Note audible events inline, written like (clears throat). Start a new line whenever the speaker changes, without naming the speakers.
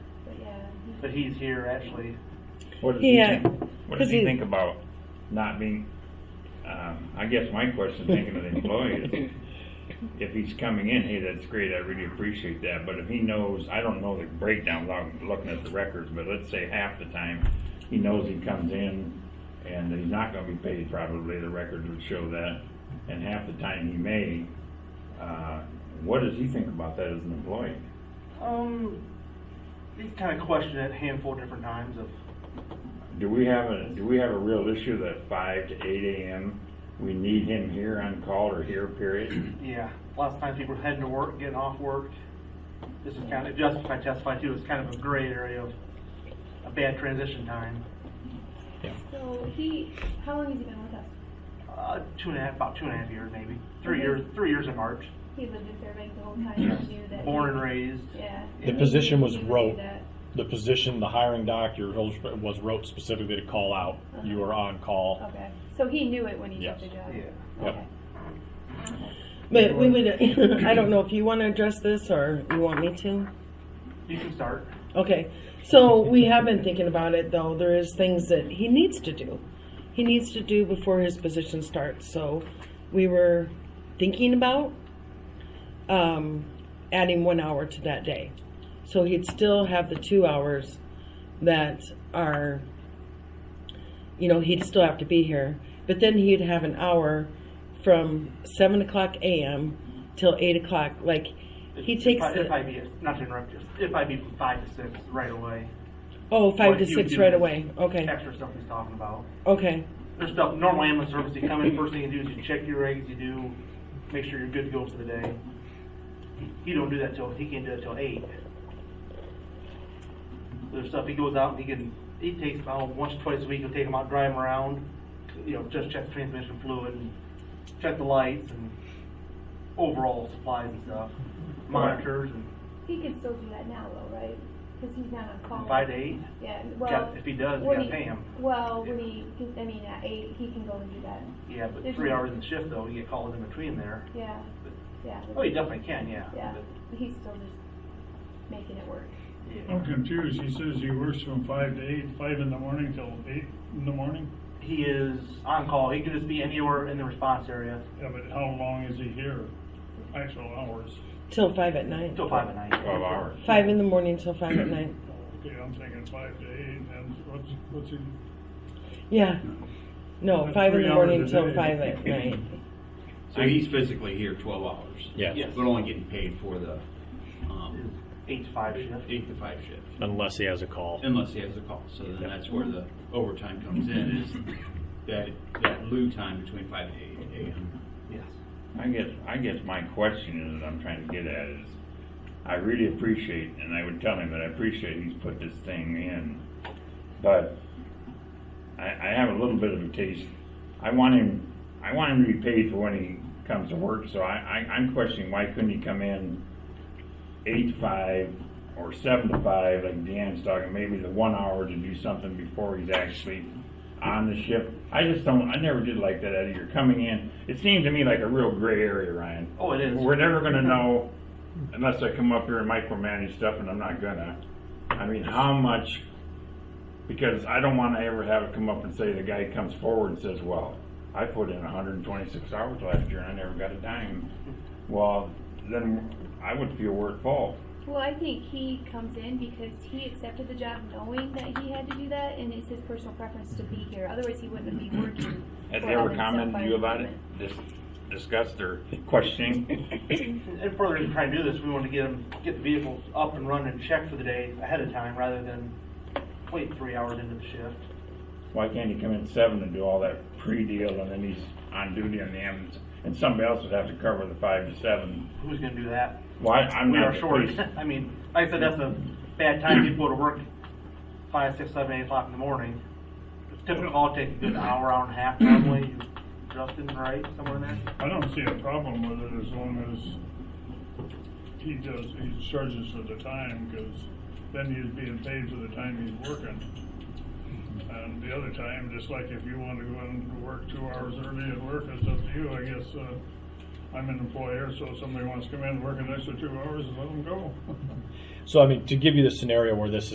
but he's here actually.
What does
Yeah,
he think? What does
'cause
he
he-
think about not being? Um, I guess my question, thinking of the employee, is if he's coming in, hey, that's great. I really appreciate that. But if he knows, I don't know the breakdown. without Looking at the records, but let's say half the time, he knows he comes in and he's not going to be paid. Probably the records would show that. And half the time he may. Uh, what does he think about that as an employee?
Um, he's kind of questioned it a handful of different times of
Do we have a, do we have a real issue that five to eight AM, we need him here on call or
(clears throat)
here period?
Yeah, lots of times people are heading to work, getting off work. This is kind of, Justin I testified too, it's kind of a gray area of a bad transition time.
So he, how long has he been with us?
Uh, two and a half, about two and a half years maybe, three years, three years in March,
He lived in Fairbanks the whole time, and knew that.
born and raised.
Yeah.
The position was
He knew
rogue.
that.
The position, the hiring doctor was wrote specifically to call out. You were on call.
Okay, so he knew it when he took
Yes.
the job?
Yeah.
Yep.
Okay.
But we would, (laughs) I don't know if you want to address this or you want me to?
You can start.
Okay, so we have been thinking about it though. There is things that he needs to do. He needs to do before his position starts. So we were thinking about um, adding one hour to that day. So he'd still have the two hours that are, you know, he'd still have to be here. But then he'd have an hour from 7 o'clock a.m. till 8 o'clock. Like he
If-
takes
If I,
the.
if I be, not to interrupt you, if I be from five to six right away,
Oh, five
Like,
to
he would
six
do
right
this
away. Okay.
extra stuff he's talking about.
Okay.
There's stuff, normal ambulance service, you come in, first thing you do is you check your regs, you do, make sure you're good to go for the day. He don't do that till, he can't do it till eight. There's stuff, he goes out and he can, he takes about once, or twice a week, he'll take them out, drive them around, you know, just check the transmission fluid and check the lights and overall supplies and stuff, monitors and
He can still do that now though, right? Because he's not on call.
from five to eight.
Yeah,
Got-
well.
If he does, we
when
gotta
he-
pay him.
Well, when he, I mean, at eight, he can go and do that.
Yeah, but
There's
three
no-
hours in the shift though, you get called in between there.
Yeah, yeah.
Oh, you definitely can, yeah.
Yeah,
but-
he's still just making it work.
Yeah.
I'm confused. He says he works from five to eight, five in the morning till eight in the morning?
He is on call. He could just be anywhere in the response area
Yeah, but how long is he here? Actual hours?
Till five at night.
until five at night.
Twelve hours.
Five in the morning till five at night.
Okay, I'm thinking five to eight, and what's, what's he,
Yeah. No,
That's
five in
three
the
hours
morning
a
till
day.
five at night.
So he's physically here twelve hours?
Yes.
Yes.
But only getting paid for the, um,
Eight to five shift.
eight to five shift,
Unless he has a call.
unless he has a call. So then that's where the overtime comes in, is that, that loo time between five to eight AM.
Yes.
I guess, I guess my question is, I'm trying to get at is, I really appreciate, and I would tell him that I appreciate he's put this thing in, but I, I have a little bit of a taste. I want him, I want him to be paid for when he comes to work, so I, I, I'm questioning why couldn't he come in eight to five or seven to five, like Deanne's talking, maybe the one hour to do something before he's actually on the ship. I just don't, I never did like that, Eddie, you're coming in, it seems to me like a real gray area, Ryan.
Oh, it is.
We're never gonna know unless I come up here and micromanage stuff, and I'm not gonna. I mean, how much, because I don't wanna ever have it come up and say, the guy comes forward and says, well, I put in hundred and twenty-six hours last year and I never got a dime. Well, then I would feel we're at fault.
Well, I think he comes in because he accepted the job knowing that he had to do that, and it's his personal preference to be here. Otherwise, he wouldn't be working.
Have
for
they ever
Evanston
commented to
Fire
you about it?
Department.
Dis- Discussed or questioning?
And further to try and do this, we want to get him, get the vehicles up and running and checked for the day ahead of time rather than wait three hours into the shift.
Why can't he come in seven and do all that pre-deal and then he's on duty on the ambulance? And somebody else would have to cover the five to seven.
Who's gonna do that?
Why, I'm
We
not
are
the
short.
police.
(laughs) I mean, like I said, that's a bad time. People go to work five, six, seven, eight o'clock in the morning. It's typical call takes a good hour, hour and a half normally. Justin, right? Somewhere in there?
I don't see a problem with it as long as he does, he charges for the time, because then he's being paid for the time he's working. And the other time, just like if you want to go in and work two hours early at work, it's up to you, I guess, uh, I'm an employer, so if somebody wants to come in and work an extra two hours, let them go.
So I mean, to give you the scenario where this